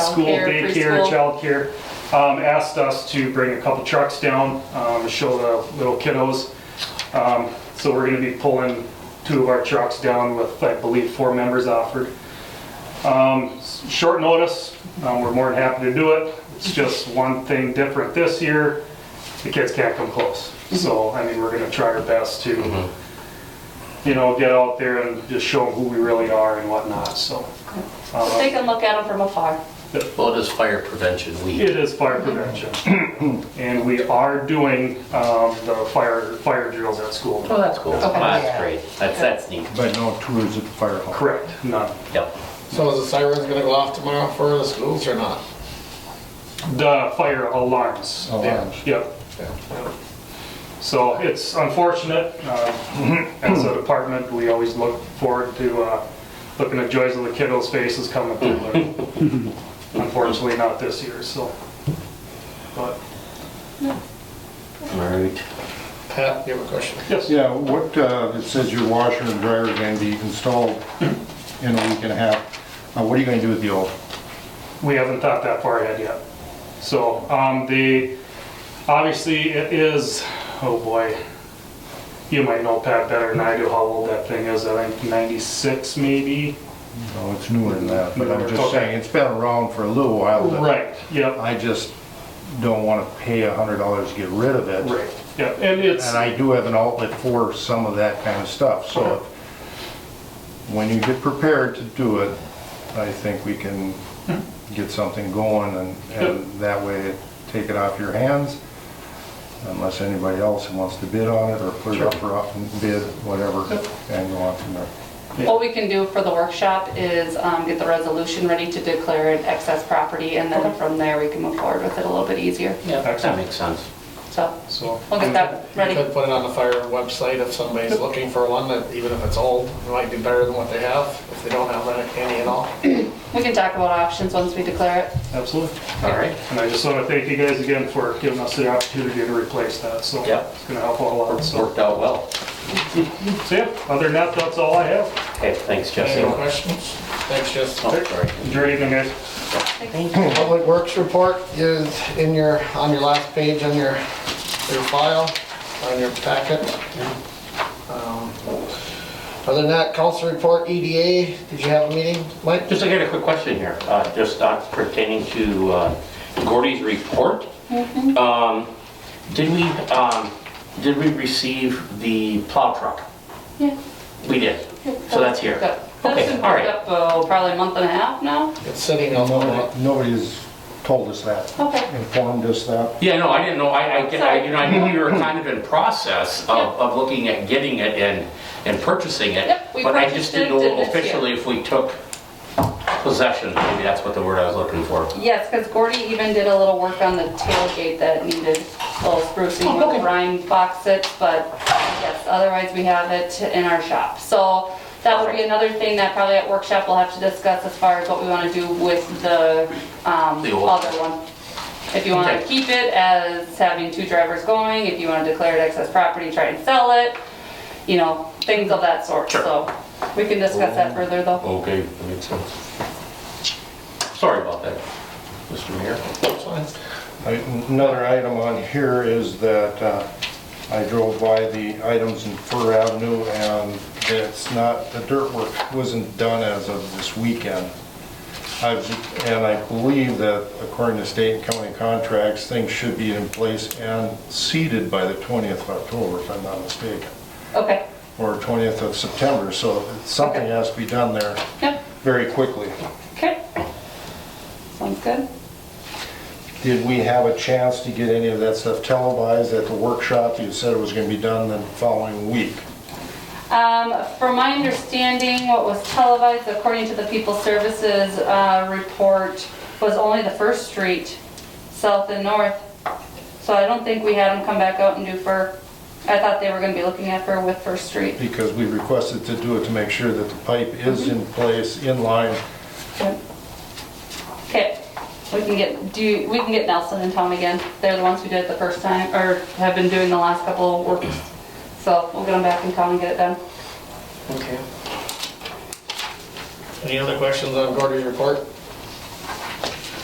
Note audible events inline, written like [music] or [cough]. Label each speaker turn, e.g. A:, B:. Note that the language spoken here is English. A: school,
B: Childcare,
A: daycare,
B: preschool.
A: childcare, um, asked us to bring a couple trucks down um, to show the little kiddos. Um, So we're going to be pulling two of our trucks down with, I believe, four members offered. Um, s- Short notice, um, we're more than happy to do it. It's just one thing different this year, the kids can't come close. So, I mean, we're going to try our best to, you know, get out there and just show them who we really are and whatnot, so.
B: So
A: uh,
B: they can look at them from afar.
C: Well, it is fire prevention week.
A: It is fire prevention, and we are doing um, the fire, fire drills at school.
C: Oh, that's cool. Well,
B: Yeah.
C: That's great. That's, that's neat.
D: But no tours at the fire hall.
A: Correct, none.
C: Yep.
E: So is the sirens gonna go off tomorrow for the schools or not?
A: The fire alarms.
D: Alarms.
A: Yep. So it's unfortunate, uh, [clears throat] as a department, we always look forward to uh, looking at joys of the kiddos' faces coming through. but Unfortunately, not this year, so. But,
C: All right.
E: Pat, you have a question?
A: yes.
D: Yeah, what, uh, it says your washer and dryer are gonna be installed in a week and a half. Uh, what are you gonna do with the old?
A: we haven't thought that far ahead yet. So, um, the, obviously it is, oh boy, you might know Pat better than I do how old that thing is, I think ninety-six maybe?
D: No, it's newer than that, but I'm
A: Okay.
D: just saying, it's been around for a little while. but
A: Right, yep,
D: I just don't wanna pay a hundred dollars to get rid of it.
A: right, yep, and it's,
D: And I do have an outlet for some of that kind of stuff, so when you get prepared to do it, I think we can get something going and, and that way take it off your hands, unless anybody else wants to bid on it or put it up for up and bid, whatever, and go on from there.
B: What we can do for the workshop is um, get the resolution ready to declare it excess property, and then from there, we can move forward with it a little bit easier.
C: Yeah, that
A: Excellent.
C: makes sense.
B: So
A: so,
B: we'll get that ready.
E: You could put it on the fire website if somebody's looking for one, that even if it's old, it might be better than what they have, if they don't have any at all.
B: We can talk about options once we declare it.
A: absolutely.
C: All right.
A: And I just wanna thank you guys again for giving us the opportunity to replace that, so.
C: Yep.
A: It's gonna help out a lot,
C: It's
A: so,
C: worked out well.
A: so yeah, other than that, that's all I have.
C: Okay, thanks, Jesse.
E: Any other questions? Thanks, Jess.
C: Oh, sorry.
A: Enjoy your evening, guys.
E: Public Works report is in your, on your last page, on your, your file, on your packet. Um, Other than that, council report, EDA, did you have a meeting, Mike?
C: Just, I got a quick question here, uh, just uh, pertaining to uh, Gordy's report. Um, Did we, um, did we receive the plow truck?
B: Yeah.
C: We did. So that's here.
B: Good. That's
C: Okay,
B: been
C: all
B: picked
C: right.
B: up, oh, probably a month and a half now.
E: It's sitting on the,
D: Nobody, nobody's told us that,
B: Okay.
D: informed us that.
C: Yeah, no, I didn't know, I, I, get- I- you know, I knew we were kind of in process of,
B: Yeah.
C: of looking at getting it and, and purchasing it.
B: Yep, we
C: But I
B: purchased
C: just
B: it
C: didn't know
B: this year.
C: officially if we took possession, maybe that's what the word I was looking for.
B: Yes, because Gordy even did a little work on the tailgate that needed a little sprucing with the brine box it, but yes, otherwise we have it in our shop. So that would be another thing that probably at workshop we'll have to discuss as far as what we want to do with the um,
C: The old-
B: other one. If you want to
C: Okay.
B: keep it as having two drivers going, if you want to declare it excess property, try and sell it, you know, things of that sort.
C: Sure. Oh.
B: So we can discuss that further though.
C: Okay, that makes sense. Sorry about that, Mr. Mayor.
D: I- Another item on here is that uh, I drove by the items in Fur Avenue and it's not, the dirt work wasn't done as of this weekend. I've, and I believe that according to state and county contracts, things should be in place and seeded by the 20th of October, if I'm not mistaken,
C: Oh.
B: Okay,
D: or 20th of September, so something
B: Okay.
D: has to be done there
B: yep,
D: very quickly.
B: okay. Sounds good.
D: Did we have a chance to get any of that stuff televised at the workshop? You said it was gonna be done the following week.
B: Um, From my understanding, what was televised, according to the People Services uh, report, was only the first street, south and north. So I don't think we had them come back out and do fur. I thought they were gonna be looking at fur with First Street.
D: Because we requested to do it to make sure that the pipe is in place, in line.
B: Okay, we can get, do, you- we can get Nelson and Tom again. They're the ones who did it the first time, or have been doing the last couple of works. So we'll get them back in town and get it done.
E: Okay. Any other questions on Gordy's report?